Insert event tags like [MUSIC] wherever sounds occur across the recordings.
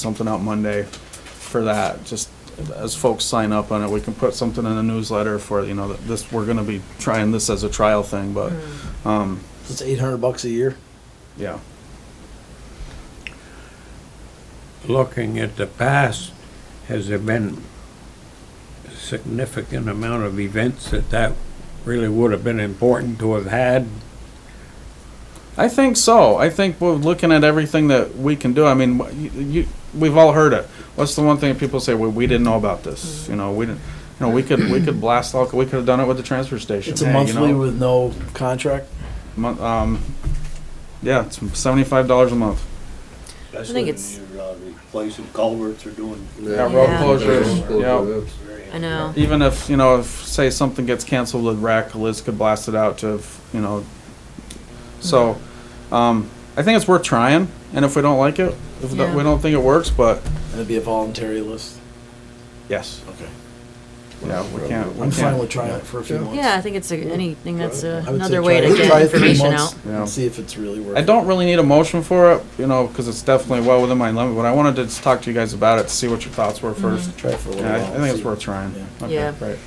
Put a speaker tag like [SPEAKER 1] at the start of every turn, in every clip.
[SPEAKER 1] something out Monday for that, just as folks sign up on it, we can put something in the newsletter for, you know, that this, we're gonna be trying this as a trial thing, but, um,
[SPEAKER 2] It's eight hundred bucks a year.
[SPEAKER 1] yeah.
[SPEAKER 3] looking at the past, has there been a significant amount of events that that really would have been important to have had?
[SPEAKER 1] I think so. I think we're looking at everything that we can do. I mean, wh- you, you, we've all heard it. What's the one thing people say? Well, we didn't know about this. You know, we didn't. You know, we could we could blast all. We could have done it with the transfer station.
[SPEAKER 2] It's a
[SPEAKER 1] Hey,
[SPEAKER 2] monthly
[SPEAKER 1] You know,
[SPEAKER 2] with no contract.
[SPEAKER 1] mon- um, yeah, it's seventy five dollars a month.
[SPEAKER 4] I think it's-
[SPEAKER 5] Especially when you're uh, replacing culverts or doing.
[SPEAKER 1] Yeah, road
[SPEAKER 4] Yeah.
[SPEAKER 1] closures.
[SPEAKER 5] It's very
[SPEAKER 4] I know.
[SPEAKER 1] Yep. Even if you know, if say something gets canceled with rec, Liz could blast it out to you know. So, um, I think it's worth trying. And if we don't like it, if
[SPEAKER 4] Yeah.
[SPEAKER 1] we don't think it works, but
[SPEAKER 2] It'd be a voluntary list.
[SPEAKER 1] yes,
[SPEAKER 2] Okay.
[SPEAKER 1] yeah, we can't. we
[SPEAKER 2] I'm fine
[SPEAKER 1] can't.
[SPEAKER 2] with trying it for a few months.
[SPEAKER 4] Yeah, I think it's a, anything that's a,
[SPEAKER 2] I would say
[SPEAKER 4] another way
[SPEAKER 2] try-
[SPEAKER 4] to
[SPEAKER 2] try
[SPEAKER 4] get
[SPEAKER 2] it three
[SPEAKER 4] information
[SPEAKER 2] months
[SPEAKER 4] out.
[SPEAKER 1] Yeah.
[SPEAKER 2] And see if it's really worth.
[SPEAKER 1] I don't really need a motion for it, you know, because it's definitely well within my limit, but I wanted to just talk to you guys about it, to see what your thoughts were first.
[SPEAKER 2] it. Try it for a little
[SPEAKER 1] Yeah, I
[SPEAKER 2] while.
[SPEAKER 1] I think it's
[SPEAKER 2] see.
[SPEAKER 1] worth trying.
[SPEAKER 2] Yeah.
[SPEAKER 1] Okay,
[SPEAKER 4] Mm-hmm. Yeah.
[SPEAKER 1] Great,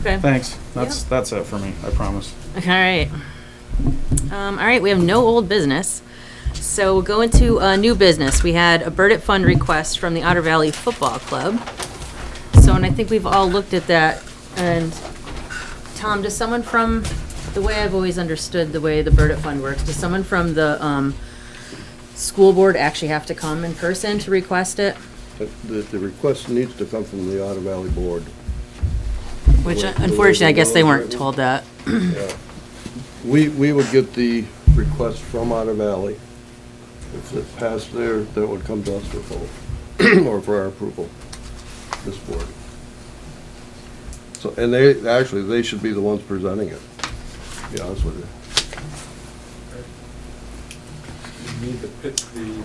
[SPEAKER 4] Okay.
[SPEAKER 1] thanks. That's, that's it for me, I promise.
[SPEAKER 4] All right. Um, all right, we have no old business. So we'll go into uh, new business. We had a Burdett Fund request from the Otter Valley Football Club. So, and I think we've all looked at that. And Tom, does someone from, the way I've always understood the way the Burdett Fund works, does someone from the um, school board actually have to come in person to request it?
[SPEAKER 6] But the, the request needs to come from the Otter Valley Board.
[SPEAKER 4] Which
[SPEAKER 6] Wait,
[SPEAKER 4] unfortunately, I guess they weren't
[SPEAKER 6] wait, wait.
[SPEAKER 4] told that. [CLEARS THROAT]
[SPEAKER 6] We, we would get the request from Otter Valley. If it passed there, that would come to us for vote, or for our approval, [CLEARS THROAT] this board. So, and they, actually, they should be the ones presenting it, to be honest with you.
[SPEAKER 7] you need to pick the,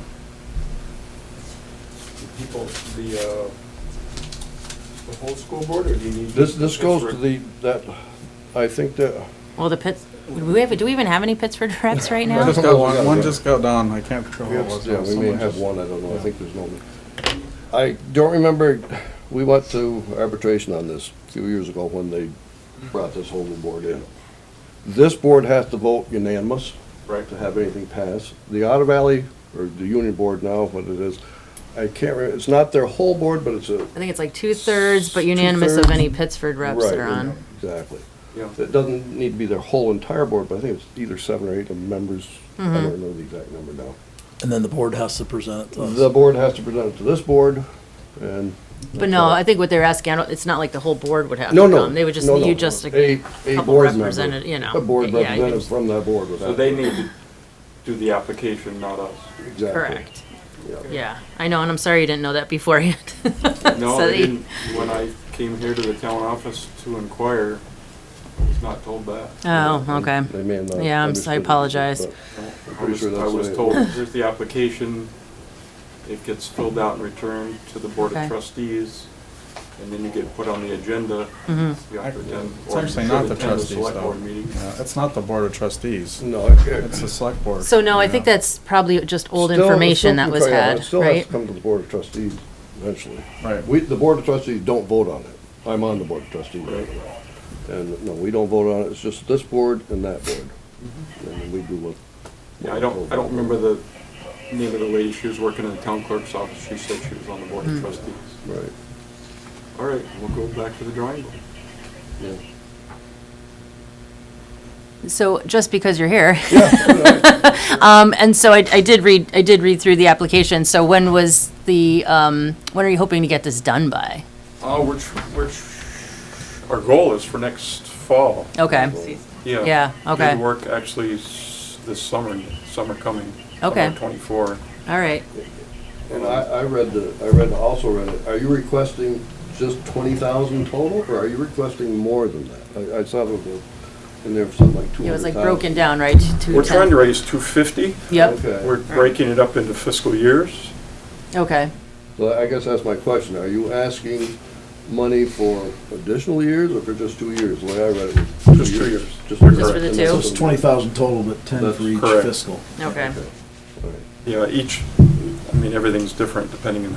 [SPEAKER 7] the people, the, uh, the whole school board, or do you need?
[SPEAKER 6] This, this goes to the, that, I think that,
[SPEAKER 4] Well, the Pitts, do we have, do we even have any Pittsford [LAUGHS] reps right now?
[SPEAKER 1] I just got one, one just got down, I can't
[SPEAKER 6] we
[SPEAKER 1] control what it
[SPEAKER 6] have-
[SPEAKER 1] was.
[SPEAKER 6] yeah, we may
[SPEAKER 1] Someone
[SPEAKER 6] have
[SPEAKER 1] just-
[SPEAKER 6] one, I don't know, I think there's no. I don't remember, we went to arbitration on this a few years ago when they brought this whole new board in. This board has to vote unanimous.
[SPEAKER 7] Right.
[SPEAKER 6] To have anything pass. The Otter Valley, or the Union Board now, what it is, I can't remember, it's not their whole board, but it's a.
[SPEAKER 4] I think it's like two-thirds, but unanimous of any Pittsford reps that
[SPEAKER 6] Right,
[SPEAKER 4] are on.
[SPEAKER 6] Exactly.
[SPEAKER 7] Yeah.
[SPEAKER 6] It doesn't need to be their whole entire board, but I think it's either seven or eight of members.
[SPEAKER 4] Mm-hmm.
[SPEAKER 6] I don't know the exact number now.
[SPEAKER 2] And then the board has to present it to us.
[SPEAKER 6] The board has to present it to this board, and.
[SPEAKER 4] But no, I think what they're asking, I don't- it's not like the whole board would have
[SPEAKER 6] No,
[SPEAKER 4] to
[SPEAKER 6] no.
[SPEAKER 4] come. They would just,
[SPEAKER 6] no, no.
[SPEAKER 4] you just,
[SPEAKER 6] A, a
[SPEAKER 4] couple
[SPEAKER 6] board member.
[SPEAKER 4] represented- you know,
[SPEAKER 6] A board
[SPEAKER 4] yeah, you could
[SPEAKER 6] representative
[SPEAKER 4] just-
[SPEAKER 6] from that board would
[SPEAKER 7] So
[SPEAKER 6] have.
[SPEAKER 7] they
[SPEAKER 6] to-
[SPEAKER 7] need to do the application, not us.
[SPEAKER 6] Exactly.
[SPEAKER 4] correct.
[SPEAKER 6] Yeah.
[SPEAKER 4] Yeah, I know, and I'm sorry you didn't know that beforehand. [LAUGHS]
[SPEAKER 7] No,
[SPEAKER 4] So
[SPEAKER 7] they
[SPEAKER 4] you-
[SPEAKER 7] didn't, when I came here to the town office to inquire, I was not told that.
[SPEAKER 4] Oh, okay.
[SPEAKER 6] They may have not
[SPEAKER 4] Yeah, I'm
[SPEAKER 6] understood
[SPEAKER 4] so- I
[SPEAKER 6] it,
[SPEAKER 4] apologize.
[SPEAKER 6] but-
[SPEAKER 7] I
[SPEAKER 6] pretty
[SPEAKER 7] was-
[SPEAKER 6] sure that's
[SPEAKER 7] I was
[SPEAKER 6] the-
[SPEAKER 7] told, here's the application, it gets filled out and returned to the board
[SPEAKER 4] Okay.
[SPEAKER 7] of trustees, and then you get put on the agenda.
[SPEAKER 4] Mm-hmm.
[SPEAKER 7] You have to attend,
[SPEAKER 1] It's
[SPEAKER 7] or you
[SPEAKER 1] actually
[SPEAKER 7] should
[SPEAKER 1] not the
[SPEAKER 7] attend
[SPEAKER 1] trustees,
[SPEAKER 7] select board
[SPEAKER 1] though.
[SPEAKER 7] meeting.
[SPEAKER 1] Yeah, It's not the board of trustees,
[SPEAKER 6] No, it- it-
[SPEAKER 1] it's the select board.
[SPEAKER 4] So no, I think
[SPEAKER 1] Yeah.
[SPEAKER 4] that's probably just old
[SPEAKER 6] still-
[SPEAKER 4] information
[SPEAKER 6] still
[SPEAKER 4] that was
[SPEAKER 6] can- yeah, it
[SPEAKER 4] had,
[SPEAKER 6] Still has
[SPEAKER 4] right?
[SPEAKER 6] to come to the board of trustees eventually.
[SPEAKER 1] Right.
[SPEAKER 6] We, the board of trustees don't vote on it. I'm on the board of trustees right now. And no, we don't vote on it. It's just this board and that board.
[SPEAKER 4] Mm-hmm.
[SPEAKER 6] And then we do what.
[SPEAKER 7] Yeah, I don't, I don't remember the name of the lady, she was working in the town clerk's office, she said she was on the board of trustees.
[SPEAKER 6] Right,
[SPEAKER 7] All right, we'll go back to the drawing board.
[SPEAKER 6] yeah.
[SPEAKER 4] So just because you're here. [LAUGHS] Um, and so I, I did read, I did read through the application. So when was the, um, when are you hoping to get this done by?
[SPEAKER 7] Uh, we're, tr- we're, tr- our goal is for next fall.
[SPEAKER 4] Okay,
[SPEAKER 7] Yeah.
[SPEAKER 4] Yeah, okay.
[SPEAKER 7] Did work actually s- this summer, summer coming.
[SPEAKER 4] Okay.
[SPEAKER 7] Summer twenty-four.
[SPEAKER 4] all right.
[SPEAKER 6] And I, I read the, I read, also read it, are you requesting just twenty thousand total, or are you requesting more than that? I, I saw that the- in there for something like two
[SPEAKER 4] It was
[SPEAKER 6] hundred
[SPEAKER 4] like
[SPEAKER 6] thousand.
[SPEAKER 4] broken down, right? to
[SPEAKER 7] We're
[SPEAKER 4] 10.
[SPEAKER 7] trying to raise two fifty.
[SPEAKER 4] Yep,
[SPEAKER 6] Okay,
[SPEAKER 7] We're breaking it up into fiscal years.
[SPEAKER 4] okay.
[SPEAKER 6] so I guess that's my question, are you asking money for additional years, or for just two years? The way I read it was
[SPEAKER 7] Just two years.
[SPEAKER 6] Just two years.
[SPEAKER 4] Just for the
[SPEAKER 6] And
[SPEAKER 4] two?
[SPEAKER 6] that's
[SPEAKER 2] So it's
[SPEAKER 6] what-
[SPEAKER 2] twenty thousand total, but ten
[SPEAKER 6] That's
[SPEAKER 2] for each
[SPEAKER 7] correct.
[SPEAKER 2] fiscal.
[SPEAKER 4] Okay.
[SPEAKER 6] All right.
[SPEAKER 7] Yeah, each, I mean, everything's different depending on